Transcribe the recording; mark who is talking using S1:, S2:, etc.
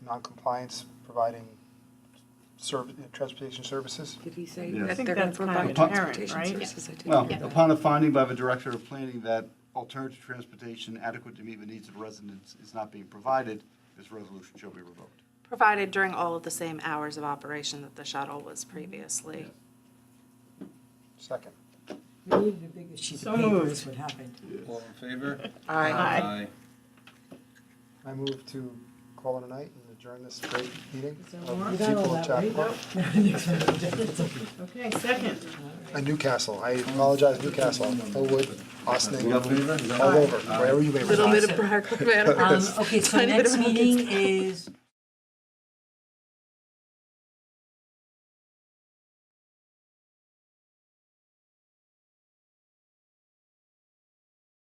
S1: noncompliance providing serv- transportation services?
S2: Did he say
S3: Yes. I
S2: that
S4: think
S2: they're going to
S4: that's kind of
S2: provide
S3: apparent,
S2: transportation
S4: right?
S2: services? I didn't
S3: Well,
S2: hear that.
S3: upon a finding by the Director of Planning that alternative transportation adequate to meet the needs of residents is not being provided, this resolution shall be revoked.
S5: Provided during all of the same hours of operation that the shuttle was previously.
S1: Second.
S6: We needed a bigger sheet
S4: So
S6: of paper
S4: moved.
S6: is what happened.
S7: All in favor?
S2: Aye.
S1: I move to call it a night and adjourn this great meeting.
S4: that
S1: of the
S4: work?
S6: You got
S1: people
S6: all
S1: of
S6: that, right?
S1: Chappaqua.
S4: Okay, second.
S1: And Newcastle, I apologize, Newcastle, Elwood, Austin,
S7: All in favor?
S1: all over, wherever you may reside.
S5: Little bit of brag, man.
S6: Um, Okay, so
S5: Tiny bit
S6: next
S5: of-
S6: meeting is